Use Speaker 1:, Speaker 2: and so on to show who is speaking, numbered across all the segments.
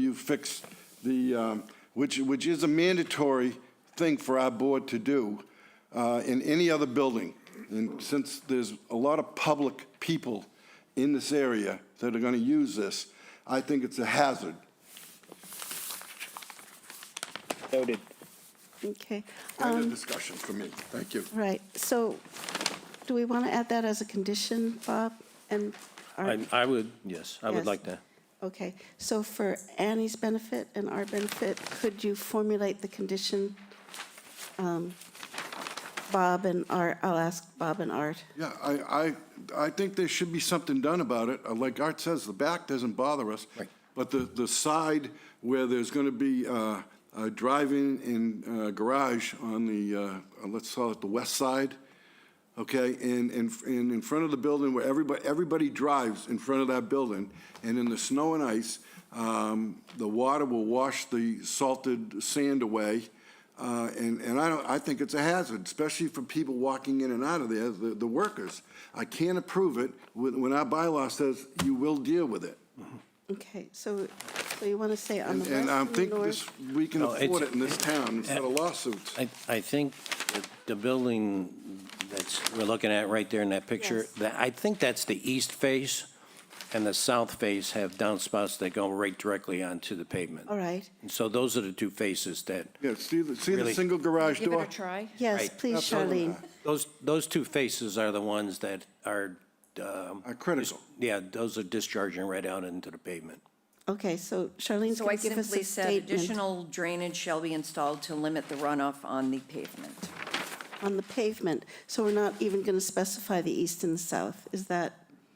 Speaker 1: You fixed the, um, which, which is a mandatory thing for our board to do uh, in any other building. And since there's a lot of public people in this area that are going to use this, I think it's a hazard.
Speaker 2: Noted.
Speaker 3: Okay,
Speaker 1: End of discussion for me. Thank you.
Speaker 3: right. So do we want to add that as a condition, Bob? And, our-
Speaker 4: I, I would, yes, I would
Speaker 3: Yes.
Speaker 4: like to.
Speaker 3: okay, so for Annie's benefit and our benefit, could you formulate the condition? um, Bob and Art, I'll ask Bob and Art.
Speaker 1: Yeah, I, I, I think there should be something done about it. Uh, Like Art says, the back doesn't bother us.
Speaker 4: Right.
Speaker 1: But the, the side where there's going to be uh, a drive-in and uh, garage on the, uh, uh, let's call it the west side, okay? And, and, and in front of the building where everybody, everybody drives in front of that building. And in the snow and ice, um, the water will wash the salted sand away. Uh, And, and I don't, I think it's a hazard, especially for people walking in and out of there, the, the workers. I can't approve it when, when our bylaw says you will deal with it.
Speaker 3: Okay, so, so you want to say on
Speaker 1: And,
Speaker 3: the west
Speaker 1: and I
Speaker 3: and the
Speaker 1: think this,
Speaker 3: north?
Speaker 1: we can
Speaker 4: No, it's-
Speaker 1: afford it in this town instead of lawsuits.
Speaker 4: I, I think that the building that's, we're looking at right there in that picture,
Speaker 3: Yes.
Speaker 4: that, I think that's the east face, and the south face have downspouts that go right directly onto the pavement.
Speaker 3: All right,
Speaker 4: And so those are the two faces that,
Speaker 1: Yeah, see the, see the
Speaker 4: Really?
Speaker 1: single garage
Speaker 5: Give it
Speaker 1: door?
Speaker 5: a try.
Speaker 3: yes,
Speaker 4: Right.
Speaker 3: please,
Speaker 1: Absolutely.
Speaker 3: Charlene.
Speaker 4: those, those two faces are the ones that are, um,
Speaker 1: Are critical.
Speaker 4: yeah, those are discharging right out into the pavement.
Speaker 3: Okay, so Charlene's
Speaker 5: So I
Speaker 3: going to give us
Speaker 5: simply
Speaker 3: a
Speaker 5: said
Speaker 3: statement
Speaker 5: additional drainage shall be installed to limit the runoff on the pavement.
Speaker 3: on the pavement. So we're not even going to specify the east and the south. Is that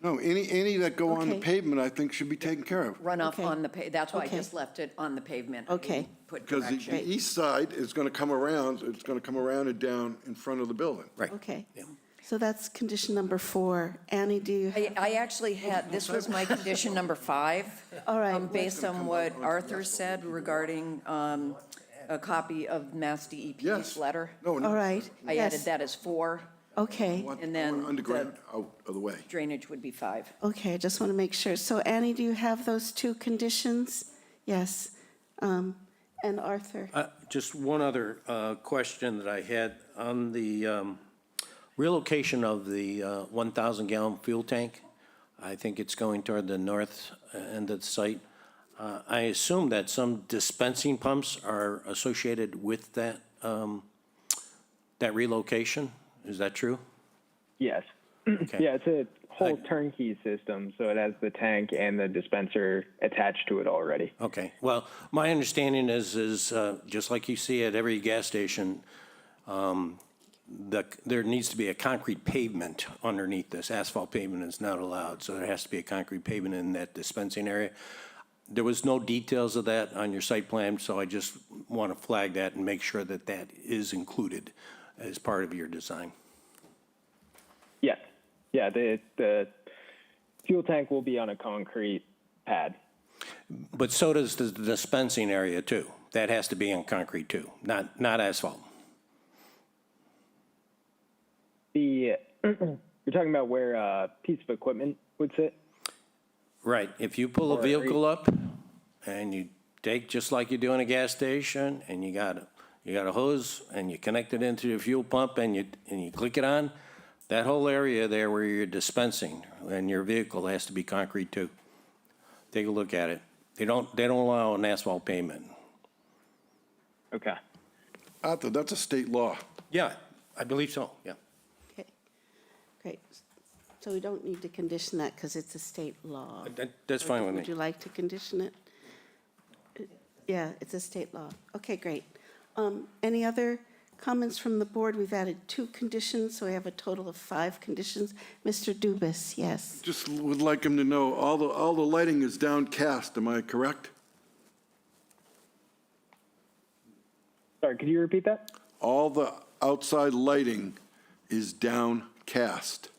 Speaker 1: No, any, any that go on the
Speaker 3: Okay.
Speaker 1: pavement, I think should be taken care of.
Speaker 5: Runoff
Speaker 3: Okay.
Speaker 5: on the, pa- that's why I
Speaker 3: Okay.
Speaker 5: just left it on the pavement. I
Speaker 3: Okay.
Speaker 5: didn't Put
Speaker 1: Because the-
Speaker 5: direction.
Speaker 1: the east side is going to come around, it's going to come around and down in front of the building.
Speaker 4: Right.
Speaker 3: Okay. So that's condition number four. Annie, do you,
Speaker 5: I, I actually had, this was my condition number five.
Speaker 3: All right.
Speaker 5: um, Based on what Arthur said regarding um, a copy of Mass DEP's
Speaker 1: Yes.
Speaker 5: letter.
Speaker 1: No, no.
Speaker 3: all right?
Speaker 5: I
Speaker 3: yes,
Speaker 5: added that as four,
Speaker 3: Okay,
Speaker 1: want-
Speaker 5: and
Speaker 1: I
Speaker 5: then
Speaker 1: want
Speaker 5: the-
Speaker 1: Underground, out of the way.
Speaker 5: drainage would be five.
Speaker 3: okay, I just want to make sure. So Annie, do you have those two conditions? Yes. Um, And Arthur?
Speaker 4: Uh, Just one other uh, question that I had on the um, relocation of the uh, 1,000-gallon fuel tank. I think it's going toward the north end of the site. Uh, I assume that some dispensing pumps are associated with that, um, that relocation? Is that true?
Speaker 2: Yes.
Speaker 4: Okay.
Speaker 2: Yeah, it's a whole
Speaker 4: Like-
Speaker 2: turnkey system, so it has the tank and the dispenser attached to it already.
Speaker 4: Okay, well, my understanding is, is uh, just like you see at every gas station, um, the, there needs to be a concrete pavement underneath this. Asphalt pavement is not allowed, so there has to be a concrete pavement in that dispensing area. There was no details of that on your site plan, so I just want to flag that and make sure that that is included as part of your design.
Speaker 2: Yeah. Yeah, the the fuel tank will be on a concrete pad.
Speaker 4: But so does the dispensing area too. That has to be on concrete too, not, not asphalt.
Speaker 2: The you're talking about where a piece of equipment would sit?
Speaker 4: Right, if you pull a
Speaker 2: Or-
Speaker 4: vehicle up and you take, just like you do in a gas station, and you got, a- you got a hose and you connect it into the fuel pump and you, and you click it on, that whole area there where you're dispensing and your vehicle has to be concrete too. Take a look at it. They don't, they don't allow an asphalt pavement.
Speaker 2: Okay.
Speaker 1: Arthur, that's a state law.
Speaker 4: Yeah, I believe so, yeah.
Speaker 3: Okay, great. So we don't need to condition that because it's a state law.
Speaker 4: That, that's fine with
Speaker 3: Would you
Speaker 4: me.
Speaker 3: like to condition it? Yeah, it's a state law. Okay, great. Um, Any other comments from the board? We've added two conditions, so we have a total of five conditions. Mr. Dubus, yes.
Speaker 1: Just would like him to know, all the, all the lighting is downcast, am I correct?
Speaker 2: Sorry, could you repeat that?
Speaker 1: All the outside lighting is downcast.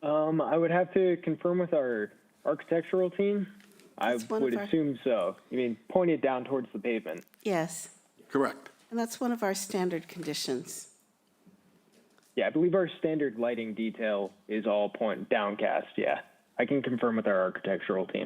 Speaker 2: Um, I would have to confirm with our architectural team. I
Speaker 3: That's one
Speaker 2: would
Speaker 3: of our-
Speaker 2: assume so. You mean point it down towards the pavement?
Speaker 3: Yes,
Speaker 1: Correct.
Speaker 3: and that's one of our standard conditions.
Speaker 2: Yeah, I believe our standard lighting detail is all point downcast. Yeah, I can confirm with our architectural team.